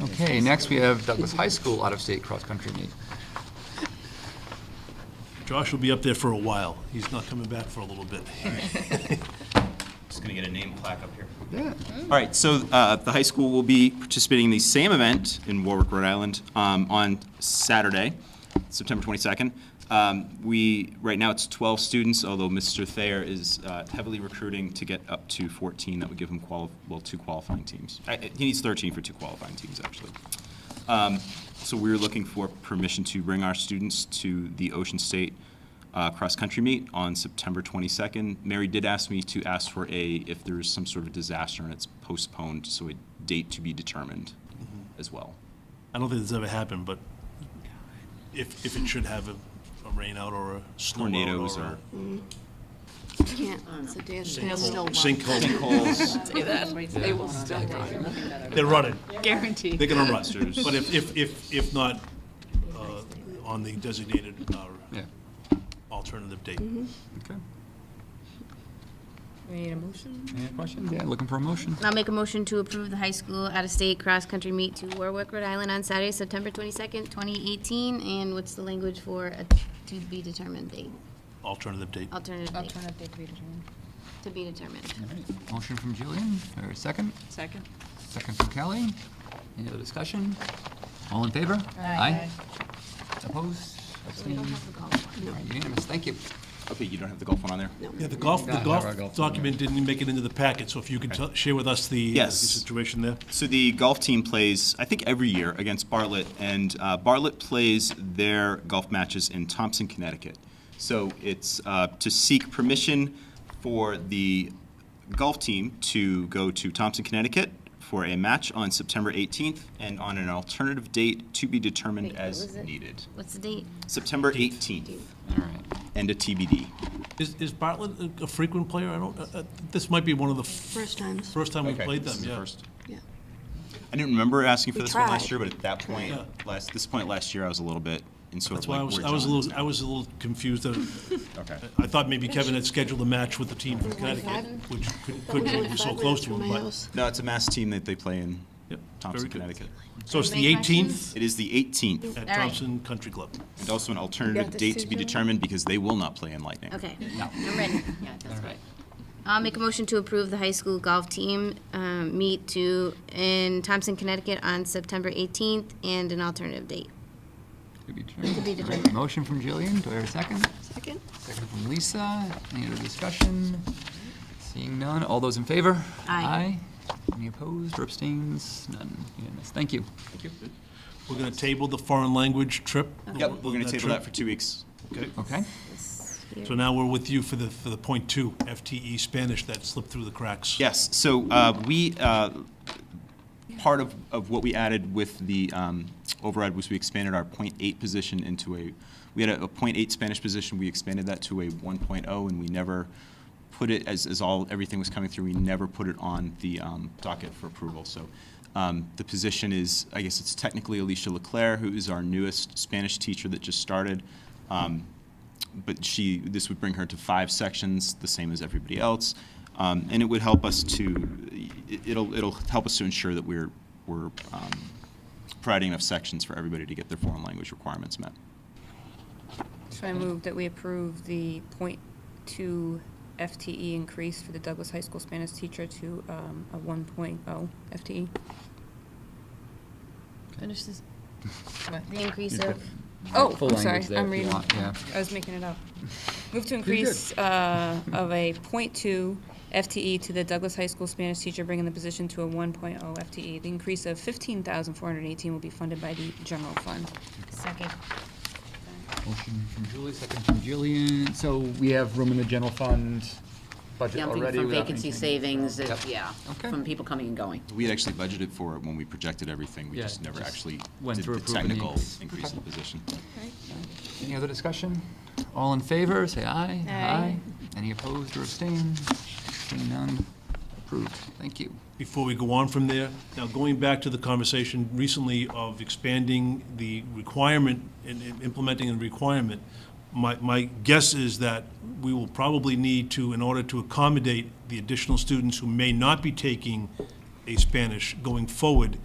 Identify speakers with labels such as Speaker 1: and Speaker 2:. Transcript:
Speaker 1: Okay, next we have Douglas High School out-of-state cross-country meet.
Speaker 2: Josh will be up there for a while. He's not coming back for a little bit.
Speaker 3: Just gonna get a name plaque up here.
Speaker 1: Yeah.
Speaker 3: All right, so uh, the high school will be participating in the same event in Warwick, Rhode Island, um, on Saturday, September 22nd. Um, We, right now, it's 12 students, although Mr. Thayer is uh, heavily recruiting to get up to 14. That would give him, quali- well, two qualifying teams. Uh, He needs 13 for two qualifying teams, actually. Um, So we're looking for permission to bring our students to the Ocean State uh, cross-country meet on September 22nd. Mary did ask me to ask for a, if there is some sort of disaster and it's postponed, so a date to be determined as well.
Speaker 2: I don't think this ever happened, but if, if it should have a, a rain out or a storm out
Speaker 3: Tornadoes
Speaker 2: or.
Speaker 3: or
Speaker 4: Can't, it's a dance, they'll still run.
Speaker 2: Sinkhole.
Speaker 3: calls,
Speaker 4: They will still run.
Speaker 2: They're running.
Speaker 5: Guaranteed.
Speaker 2: They're gonna run.
Speaker 3: Monsters.
Speaker 2: But if, if, if, if not, uh, on the designated, uh,
Speaker 1: Yeah,
Speaker 2: alternative date.
Speaker 4: Mm-hmm.
Speaker 1: okay.
Speaker 6: We need a motion?
Speaker 1: Any questions? Yeah, looking for a motion.
Speaker 6: I'll make a motion to approve the high school out-of-state cross-country meet to Warwick, Rhode Island on Saturday, September 22nd, 2018. And what's the language for a to-be-determined date?
Speaker 2: Alternative date.
Speaker 6: Alternative date,
Speaker 5: Alternative date to be determined.
Speaker 6: to be determined.
Speaker 1: All right, Motion from Jillian, or a second,
Speaker 5: Second?
Speaker 1: second from Kelly. Any other discussion? All in favor? Opposed?
Speaker 6: We
Speaker 1: Abstained?
Speaker 6: don't have to call it
Speaker 1: All
Speaker 6: one.
Speaker 1: right, Unanimous, thank you.
Speaker 3: okay, you don't have the golf one on there?
Speaker 2: Yeah, the golf, the
Speaker 1: Yeah, our golf
Speaker 2: golf
Speaker 1: one,
Speaker 2: document didn't make it into the packet, so if you could tell- share with us the, uh, the
Speaker 3: Yes.
Speaker 2: situation there.
Speaker 3: So the golf team plays, I think, every year against Bartlett, and uh, Bartlett plays their golf matches in Thompson, Connecticut. So it's uh, to seek permission for the golf team to go to Thompson, Connecticut for a match on September 18th and on an alternative date to be determined
Speaker 6: Wait, what
Speaker 3: as
Speaker 6: was it?
Speaker 3: needed.
Speaker 6: What's the date?
Speaker 3: September 18th
Speaker 1: All right.
Speaker 3: and a TBD.
Speaker 2: Is, is Bartlett a- a frequent player? I don't, uh, uh, this might be one of the f-
Speaker 4: First times,
Speaker 2: first time we
Speaker 3: Okay,
Speaker 2: played
Speaker 3: this
Speaker 2: them,
Speaker 3: is the
Speaker 2: yeah.
Speaker 3: first.
Speaker 4: yeah.
Speaker 3: I didn't remember asking for
Speaker 4: We
Speaker 3: this one last
Speaker 4: tried.
Speaker 3: year, but at that point,
Speaker 2: Yeah.
Speaker 3: last, this point last year, I was a little bit in sort
Speaker 2: That's
Speaker 3: of
Speaker 2: why
Speaker 3: like
Speaker 2: I was,
Speaker 3: where
Speaker 2: I was a
Speaker 3: John
Speaker 2: little, I was a little confused. uh,
Speaker 3: is now. Okay.
Speaker 2: I thought maybe Kevin had scheduled a match with the team from Connecticut, which could- couldn't, it was so close to
Speaker 4: From
Speaker 2: him,
Speaker 4: my
Speaker 2: but.
Speaker 4: house.
Speaker 3: No, it's a mass team that they play in
Speaker 2: yep,
Speaker 3: Thompson,
Speaker 2: very good.
Speaker 3: Connecticut.
Speaker 2: So it's the
Speaker 6: Any questions?
Speaker 2: 18th
Speaker 3: It is the 18th,
Speaker 2: at
Speaker 6: All right.
Speaker 2: Thompson Country Club.
Speaker 3: and also an alternative date to be determined because they will not play in Lightning.
Speaker 6: Okay, I'm ready. I'll make a motion to approve the high school golf team um, meet to, in Thompson, Connecticut on September 18th and an alternative date.
Speaker 1: To be determined.
Speaker 6: To be
Speaker 1: All right,
Speaker 6: determined.
Speaker 1: Motion from Jillian, do I hear a second?
Speaker 4: Second?
Speaker 1: Second from Lisa. Any other discussion? Seeing none, all those in favor?
Speaker 6: Aye.
Speaker 1: Aye. Any opposed or abstains? None, unanimous, thank you.
Speaker 2: We're gonna table the foreign language trip.
Speaker 3: Yep, we're going to table
Speaker 2: trip.
Speaker 3: that for two weeks.
Speaker 1: Okay,
Speaker 2: So now we're with you for the, for the point two, FTE Spanish that slipped through the cracks.
Speaker 3: Yes, so uh, we, uh, part of, of what we added with the um, override was we expanded our .8 position into a, we had a a .8 Spanish position, we expanded that to a one oh, and we never put it, as, as all, everything was coming through, we never put it on the um, docket for approval, so um, the position is, I guess it's technically Alicia Leclerc, who is our newest Spanish teacher that just started. Um, but she, this would bring her to five sections, the same as everybody else. Um, and it would help us to, it- it'll, it'll help us to ensure that we're, we're um, providing enough sections for everybody to get their foreign language requirements met.
Speaker 7: So I move that we approve the point two FTE increase for the Douglas High School Spanish teacher to um, a one FTE.
Speaker 6: Finish this. The increase
Speaker 1: Yeah.
Speaker 6: of,
Speaker 7: Oh,
Speaker 1: full
Speaker 7: I'm
Speaker 1: language
Speaker 7: sorry,
Speaker 1: there
Speaker 7: I'm
Speaker 1: if you
Speaker 7: reading.
Speaker 1: want, yeah.
Speaker 7: I was making it up. Move to
Speaker 1: Pretty good.
Speaker 7: increase uh, of a point two FTE to the Douglas High School Spanish teacher, bringing the position to a one oh FTE. E. The increase of fifteen thousand four hundred eighteen will be funded by the general fund.
Speaker 6: second.
Speaker 1: motion from Julie, second from Jillian. So we have room in the general fund budget already
Speaker 8: Jumping from
Speaker 1: without
Speaker 8: vacancy
Speaker 1: anything-
Speaker 8: savings, it-
Speaker 1: Yep.
Speaker 8: yeah,
Speaker 1: Okay.
Speaker 8: from people coming and going.
Speaker 3: We had actually budgeted for it when we projected everything, we
Speaker 1: Yeah,
Speaker 3: just never
Speaker 1: just
Speaker 3: actually
Speaker 1: went
Speaker 3: did
Speaker 1: through
Speaker 3: the
Speaker 1: approving the
Speaker 3: technical
Speaker 1: increase.
Speaker 3: increase in the position.
Speaker 1: Any other discussion? All in favor, say aye. Aye. Any opposed or abstained? Seeing none, approved, thank you.
Speaker 2: before we go on from there. Now, going back to the conversation recently of expanding the requirement and and implementing a requirement, my, my guess is that we will probably need to, in order to accommodate the additional students who may not be taking a Spanish going forward,